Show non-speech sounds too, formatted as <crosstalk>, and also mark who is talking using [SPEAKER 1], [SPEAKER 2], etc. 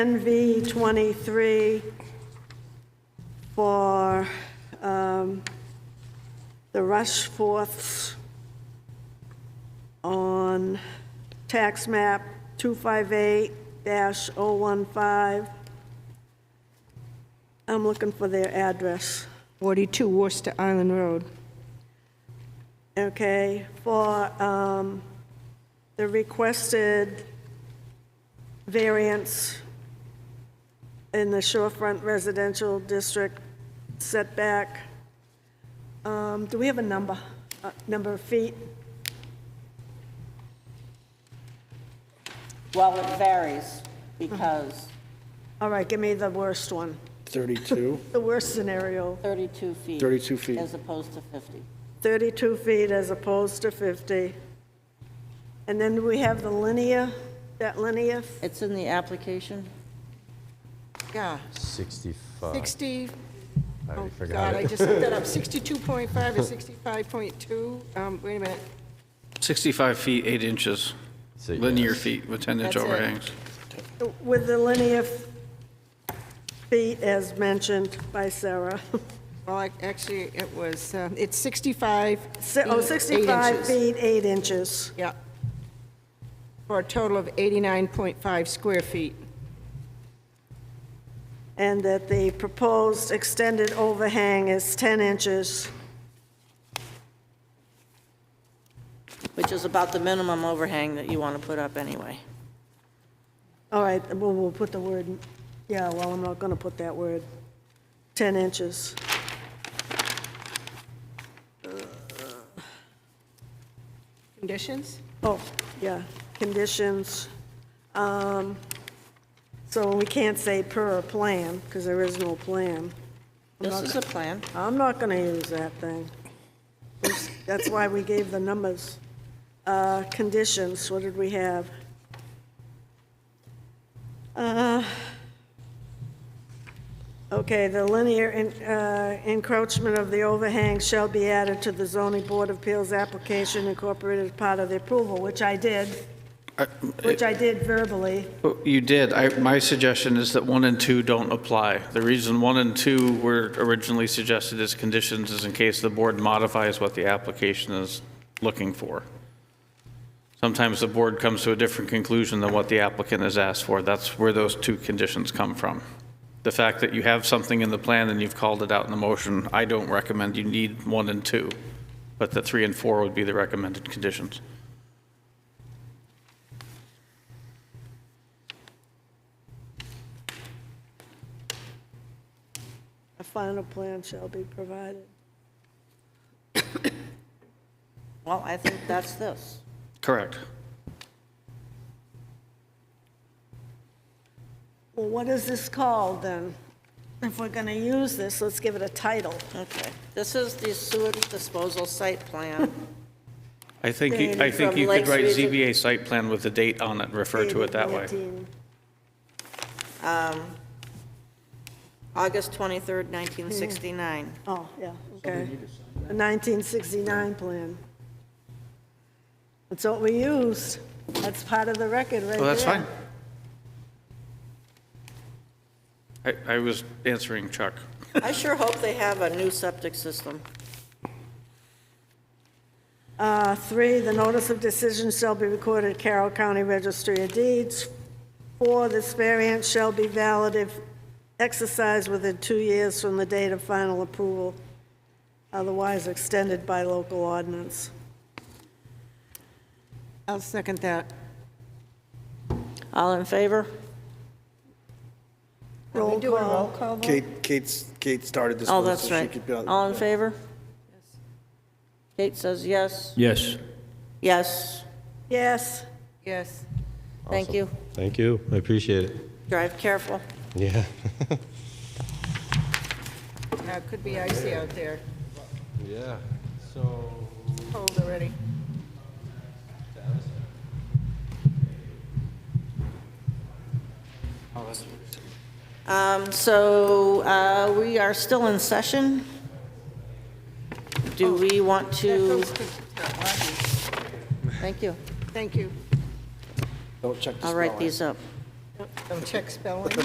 [SPEAKER 1] NV 23 for um, the Rushforths on tax map 258-015. I'm looking for their address.
[SPEAKER 2] 42 Worcester Island Road.
[SPEAKER 1] Okay, for um, the requested variance in the shorefront residential district setback, um, do we have a number, uh, number of feet?
[SPEAKER 3] Well, it varies because
[SPEAKER 1] All right, give me the worst one,
[SPEAKER 4] 32,
[SPEAKER 3] <laughs>
[SPEAKER 1] the worst scenario,
[SPEAKER 3] 32 feet.
[SPEAKER 4] 32 feet.
[SPEAKER 3] As opposed to 50.
[SPEAKER 1] 32 feet as opposed to 50. And then we have the linear, that linear,
[SPEAKER 3] It's in the application?
[SPEAKER 5] Yeah,
[SPEAKER 6] 65.
[SPEAKER 5] 60,
[SPEAKER 6] I
[SPEAKER 5] oh
[SPEAKER 6] already
[SPEAKER 5] God,
[SPEAKER 6] forgot
[SPEAKER 5] I
[SPEAKER 6] it.
[SPEAKER 5] just looked that
[SPEAKER 6] <laughs>
[SPEAKER 5] up, 62.5 or 65.2, um, wait a minute,
[SPEAKER 7] 65 feet, 8 inches,
[SPEAKER 6] So, yeah,
[SPEAKER 7] linear
[SPEAKER 6] that's-
[SPEAKER 7] feet with
[SPEAKER 5] That's
[SPEAKER 7] 10-inch
[SPEAKER 5] it.
[SPEAKER 7] overhangs.
[SPEAKER 1] with the linear feet as mentioned by Sarah. <laughs>
[SPEAKER 5] well, I- actually, it was, um, it's 65.
[SPEAKER 1] Si- Oh,
[SPEAKER 5] feet, eight
[SPEAKER 1] 65
[SPEAKER 5] inches.
[SPEAKER 1] feet, 8 inches.
[SPEAKER 5] Yeah. For a total of 89.5 square feet.
[SPEAKER 1] And that the proposed extended overhang is 10 inches.
[SPEAKER 3] Which is about the minimum overhang that you want to put up anyway.
[SPEAKER 1] All right, well, we'll put the word, yeah, well, I'm not going to put that word, 10 inches.
[SPEAKER 5] Conditions?
[SPEAKER 1] Oh, yeah, conditions. Um, So we can't say per plan, because there is no plan.
[SPEAKER 3] This is a plan.
[SPEAKER 1] I'm not going to use that thing. That's why we gave the numbers. Uh, Conditions, what did we have? Uh, Okay, the linear en- uh, encroachment of the overhang shall be added to the zoning board of appeals application incorporated as part of the approval, which I did,
[SPEAKER 7] I-
[SPEAKER 1] which I did verbally.
[SPEAKER 7] Oh, You did. I, my suggestion is that one and two don't apply. The reason one and two were originally suggested as conditions is in case the board modifies what the application is looking for. Sometimes the board comes to a different conclusion than what the applicant has asked for. That's where those two conditions come from. The fact that you have something in the plan and you've called it out in the motion, I don't recommend you need one and two, but the three and four would be the recommended conditions.
[SPEAKER 1] A final plan shall be provided.
[SPEAKER 3] Well, I think that's this.
[SPEAKER 7] Correct.
[SPEAKER 1] Well, what is this called, then? If we're going to use this, let's give it a title.
[SPEAKER 3] Okay. This is the sewage disposal site plan.
[SPEAKER 7] I think, you- I
[SPEAKER 1] Dated
[SPEAKER 7] think
[SPEAKER 3] from
[SPEAKER 7] you could
[SPEAKER 3] Lakes
[SPEAKER 7] write
[SPEAKER 3] Region.
[SPEAKER 7] ZBA site plan with the date on it, refer to it that way.
[SPEAKER 1] 18.
[SPEAKER 3] August 23rd, 1969.
[SPEAKER 1] Oh, yeah, okay. The 1969 plan. That's what we used. That's part of the record right there.
[SPEAKER 7] Well, that's fine. I, I was answering Chuck.
[SPEAKER 3] I sure hope they have a new septic system.
[SPEAKER 1] Uh, Three, the notice of decision shall be recorded at Carroll County Registry of Deeds. Four, this variance shall be valid if exercised within two years from the date of final approval, otherwise extended by local ordinance.
[SPEAKER 5] I'll second that.
[SPEAKER 3] All in favor?
[SPEAKER 1] Roll call.
[SPEAKER 4] Kate, Kate's, Kate started this
[SPEAKER 3] Uh-huh. Oh,
[SPEAKER 4] one,
[SPEAKER 3] that's
[SPEAKER 4] so she
[SPEAKER 3] right.
[SPEAKER 4] could be on.
[SPEAKER 3] All in favor? Kate says yes.
[SPEAKER 8] Yes.
[SPEAKER 3] Yes.
[SPEAKER 1] Yes.
[SPEAKER 5] Yes.
[SPEAKER 3] Thank you.
[SPEAKER 6] Thank you, I appreciate it.
[SPEAKER 3] Drive careful.
[SPEAKER 6] Yeah.
[SPEAKER 5] Uh, it Could be icy out there,
[SPEAKER 6] Yeah, so.
[SPEAKER 5] cold already.
[SPEAKER 3] Um, So uh, we are still in session. Do we want to? Thank you.
[SPEAKER 5] Thank you.
[SPEAKER 4] Don't check the
[SPEAKER 3] I'll
[SPEAKER 4] spelling.
[SPEAKER 3] write these up.
[SPEAKER 5] Don't check spelling.